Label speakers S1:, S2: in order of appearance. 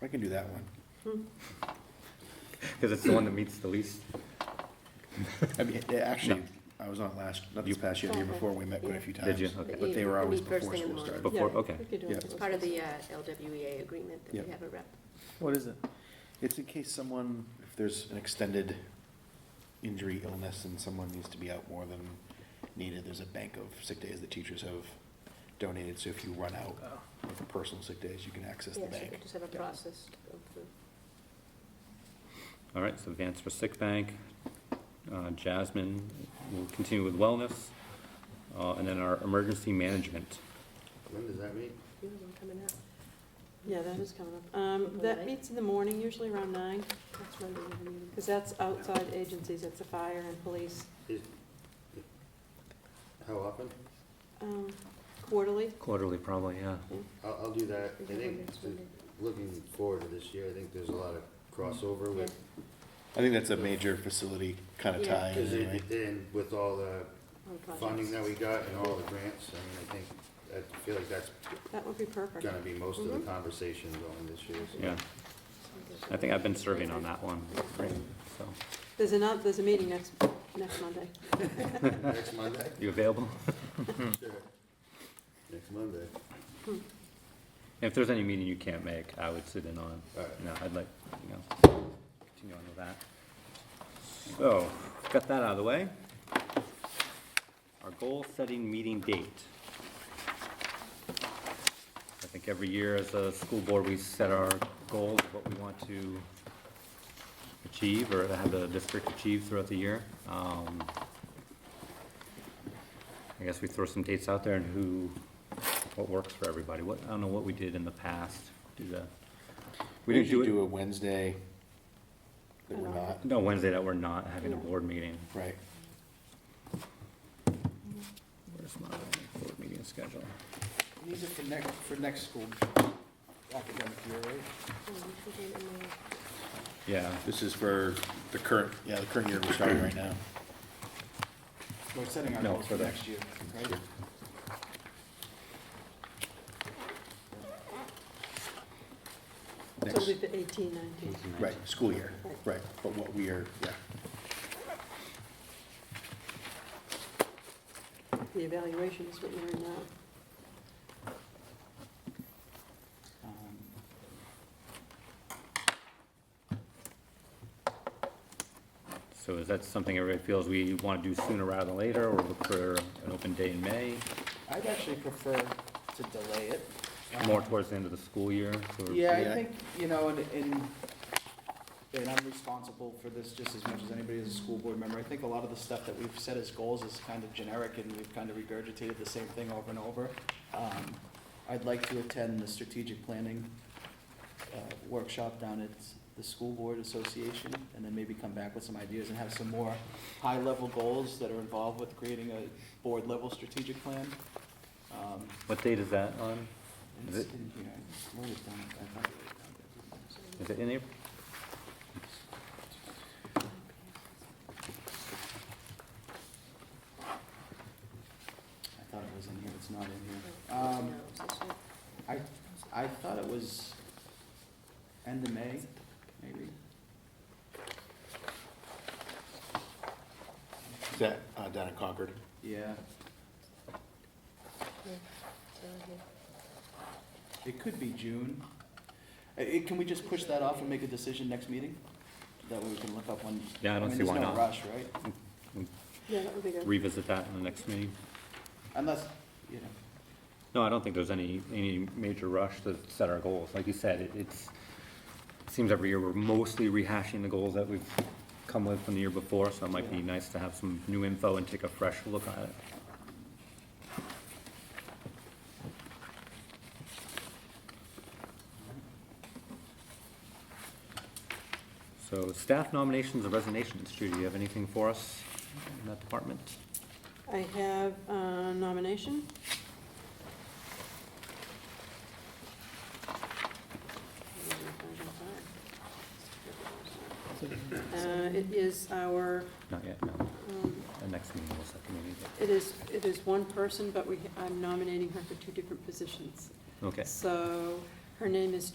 S1: I can do that one.
S2: Because it's the one that meets the least.
S1: I mean, yeah, actually, I was on it last, not this past year, the year before, we met quite a few times.
S2: Did you? Okay.
S1: But they were always
S3: Meet first
S1: before
S3: thing in
S1: school
S3: the morning.
S1: started.
S2: Before,
S4: Yeah,
S2: okay.
S4: we could do
S1: Yeah.
S4: it.
S1: It's
S3: It's part of the uh, LWEA agreement that
S1: Yeah.
S3: we have a rep.
S4: What is it?
S1: It's in case someone, if there's an extended injury, illness, and someone needs to be out more than needed, there's a bank of sick days that teachers have donated, so if you run out of personal sick days, you can access the
S3: Yes,
S1: bank.
S3: we just have a
S1: Yeah.
S3: process of the.
S2: All right, so Vance for sick bank. Uh, Jasmine will continue with wellness. Uh, And then our emergency management.
S5: When does that meet?
S3: you have one coming up.
S4: Yeah, that is coming up. Um, that meets in the morning, usually around nine,
S3: That's Monday, we have a meeting.
S4: because that's outside agencies, it's the fire and police,
S5: Is, how often?
S4: um, quarterly.
S2: Quarterly, probably, yeah.
S5: I'll, I'll do that. I
S3: We have one
S5: think,
S3: next Monday.
S5: looking forward to this year, I think there's a lot of crossover with,
S1: I think that's a major facility kind of
S3: Yeah.
S1: tie,
S5: because
S1: in, right?
S5: it, and with all the
S3: On projects.
S5: funding that we got and all the grants, I mean, I think, I feel like that's
S4: That would be perfect.
S5: gonna be most of the
S3: Mhm.
S5: conversation going this year. so.
S2: Yeah, I think I've been serving on that one. So,
S4: There's another, there's a meeting next, next Monday.
S5: Next Monday?
S2: you available?
S5: Sure. Next Monday.
S2: If there's any meeting you can't make, I would sit in on.
S5: All right.
S2: No, I'd like, you know, continue on with that. So, got that out of the way. Our goal-setting meeting date. I think every year as a school board, we set our goals, what we want to achieve or have the district achieve throughout the year. Um, I guess we throw some dates out there and who, what works for everybody. What, I don't know what we did in the past. Do the, we didn't do
S1: usually
S2: it.
S1: do a Wednesday that we're not,
S2: No, Wednesday that we're not having a board meeting.
S1: right?
S2: Where's my board meeting schedule?
S6: These are for next, for next school academic year, right?
S2: Yeah,
S1: This is for the current, yeah, the current year we're starting right now.
S6: We're setting our
S2: No,
S6: goals
S2: for
S6: for
S2: the-
S6: next year, right?
S4: So
S1: Next,
S4: it'll be eighteen, nineteen.
S1: right, school year, right, but what we are, yeah.
S5: Mm-hmm.
S4: The evaluation is what you're in now.
S6: Um,
S2: so is that something everybody feels we want to do sooner rather than later, or look for an open day in May?
S6: I'd actually prefer to delay it. um,
S2: More towards the end of the school year? so we're-
S6: Yeah,
S1: Yeah.
S6: I think, you know, and, and, and I'm responsible for this just as much as anybody as a school board member. I think a lot of the stuff that we've set as goals is kind of generic and we've kind of regurgitated the same thing over and over. Um, I'd like to attend the strategic planning, uh, workshop down at the School Board Association and then maybe come back with some ideas and have some more high-level goals that are involved with creating a board-level strategic plan. Um,
S2: What date is that on? Is
S6: It's
S2: it-
S6: in here, I wrote it down, I thought I wrote it down.
S2: Is it in April?
S6: I thought it was in here, it's not in here. Um,
S3: Um.
S6: I, I thought it was end of May, maybe.
S1: Is that uh, down in Concord?
S6: Yeah, it could be June. Uh, it- can we just push that off and make a decision next meeting? That way we can look up when.
S2: Yeah, I don't
S6: mean,
S2: see why not.
S6: There's no rush, right?
S4: Yeah, that would be good.
S2: Revisit that in the next meeting?
S6: Unless, you know,
S2: No, I don't think there's any, any major rush to set our goals. Like you said, it- it's, it seems every year we're mostly rehashing the goals that we've come with from the year before, so it might be
S6: Yeah.
S2: nice to have some new info and take a fresh look at it. So staff nominations and resignations, Judy, do you have anything for us in that department?
S4: I have a nomination. Uh, it is our,
S2: Not yet, no.
S4: um,
S2: The next meeting, we'll set the meeting. but-
S4: it is, it is one person, but we, I'm nominating her for two different positions.
S2: Okay.
S4: So her name is